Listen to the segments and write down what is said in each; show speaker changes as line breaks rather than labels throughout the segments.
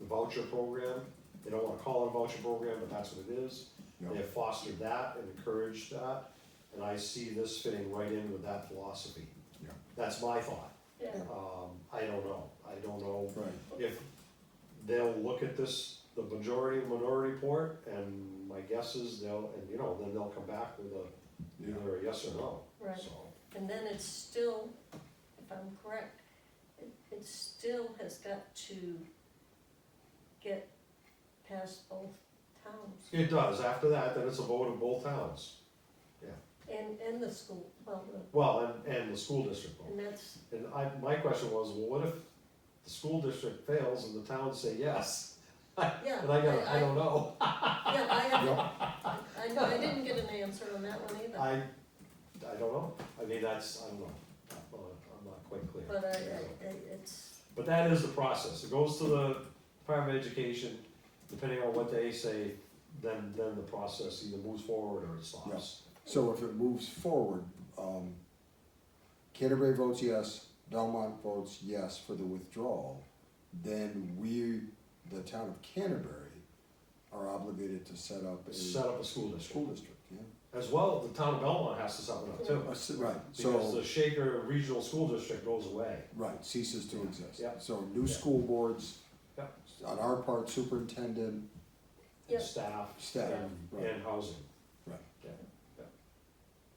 voucher program. They don't wanna call it a voucher program, but that's what it is. They have fostered that and encouraged that, and I see this fitting right in with that philosophy.
Yeah.
That's my thought.
Yeah.
Um, I don't know. I don't know
Right,
if they'll look at this, the majority and minority report, and my guess is they'll, and you know, then they'll come back with a,
yeah,
either a yes or no,
Right,
so.
and then it's still, if I'm correct, it, it still has got to get past both towns
It does. After that, then it's a vote of both towns.
and, and the school, well, the-
Well, and, and the school district vote.
and that's,
And I, my question was, well, what if the school district fails and the towns say yes?
yeah.
And I got, I don't know.
Yeah, I, have-
yeah,
I, I didn't get an answer on that one either,
I, I don't know, I mean, that's, I don't know, I'm not, I'm not quite clear.
but I, I, I- it's,
But that is the process, it goes to the Department of Education, depending on what they say, then, then the process either moves forward or it stops.
so if it moves forward, um, Canterbury votes yes, Belmont votes yes for the withdrawal, then we, the town of Canterbury, are obligated to set up a
Set
school
up a school district,
district, yeah.
as well, the town of Belmont has to set one up too,
Uh, s- Right,
because
so,
the Shaker Regional School District goes away.
right, ceases to exist.
Yeah.
So new
Yeah.
school boards,
Yeah.
on our part, superintendent,
Yeah.
Staff
staff,
Yeah.
right,
and housing,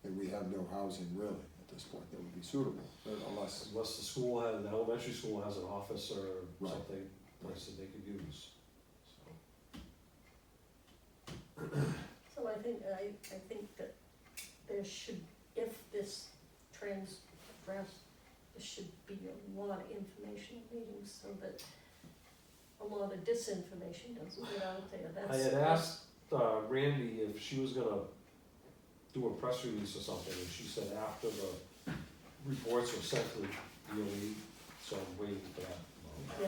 and we have no housing really at this point that would be suitable, unless
unless the school has, the elementary school has an office or
Right.
something, place that they could use, so.
so I think, I, I think that there should, if this trans, draft, there should be a lot of information meetings so that a lot of disinformation doesn't get out there,
I
that's.
had asked uh, Randy if she was gonna do a press release or something, and she said after the reports were sent to the DOE, so I'm waiting for that.
Yeah,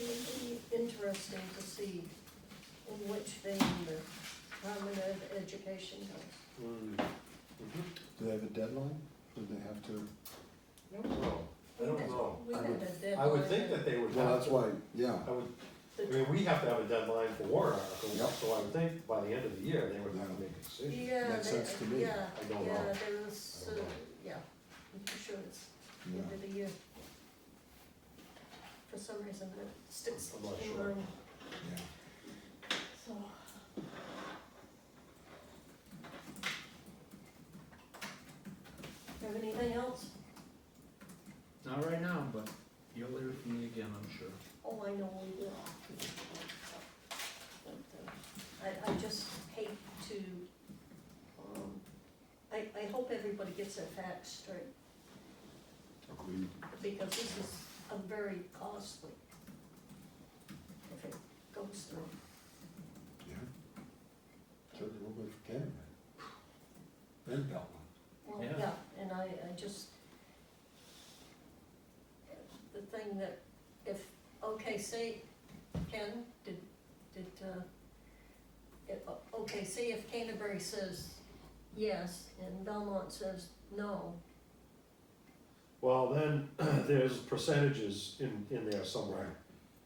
it'll be interesting to see in which vein the Department of Education goes.
Mm, mhm.
Do they have a deadline? Do they have to?
No, I don't know.
We had
I would-
a deadline.
I would think that they would
Well,
have,
that's why, yeah,
I would,
The
I mean, we have to have a deadline for warrant
Yep.
articles, so I would think by the end of the year, they would have to make a decision.
Yeah,
Makes
they-
sense to me.
Yeah,
I don't
yeah,
know.
there was,
I don't
uh,
know.
yeah, I'm pretty sure it's
yeah,
end of the year. For some reason, it sticks
I'm not
in
sure.
mind,
yeah.
so. Have anything else?
Not right now, but you'll hear from me again, I'm sure.
Oh, I know we will. But, uh, I, I just hate to, um, I, I hope everybody gets their facts straight.
Agreed.
because this is a very costly, if it goes through.
Yeah. Certainly will be for Canterbury. And Belmont.
Well,
Yeah.
yeah, and I, I just, the thing that if, okay, say, Ken, did, did, uh, if, okay, say if Canterbury says yes and Belmont says no,
Well, then, there's percentages in, in there somewhere,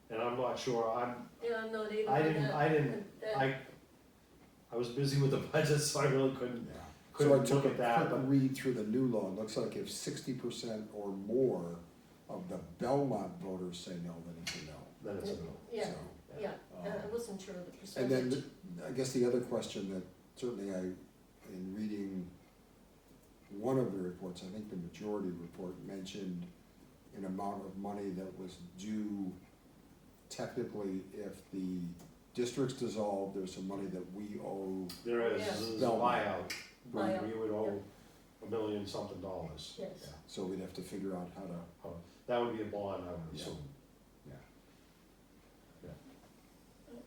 and I'm not sure, I'm,
yeah, I'm not even.
I didn't-
that-
I didn't-
that-
I, I was busy with the budget, so I really couldn't,
Yeah. So I
couldn't
took
look
a
at that,
quick
but
read through the new law, it looks like if sixty percent or more of the Belmont voters say no, then it's a no.
then it's a no.
Yeah, uh,
So,
yeah,
um,
I
uh,
I wasn't sure of the
And
percentage.
then, th- I guess the other question that certainly I, in reading one of the reports, I think the majority report mentioned an amount of money that was due technically if the district's dissolved, there's some money that we owe.
There is,
Yeah.
there's a buyout,
Buyout.
we would owe a million something dollars.
Yes.
Yeah.
So we'd have to figure out how to,
That would be a bond, I would
Yeah.
assume.
Yeah.
Yeah.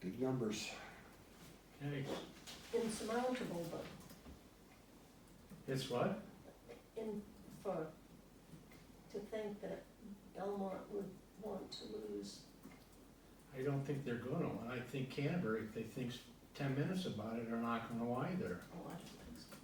big numbers.
Hey,
insurmountable, but
it's what?
in, for, to think that Belmont would want to lose.
I don't think they're gonna, and I think Canterbury, if they think ten minutes about it, are not gonna either.
Oh, I-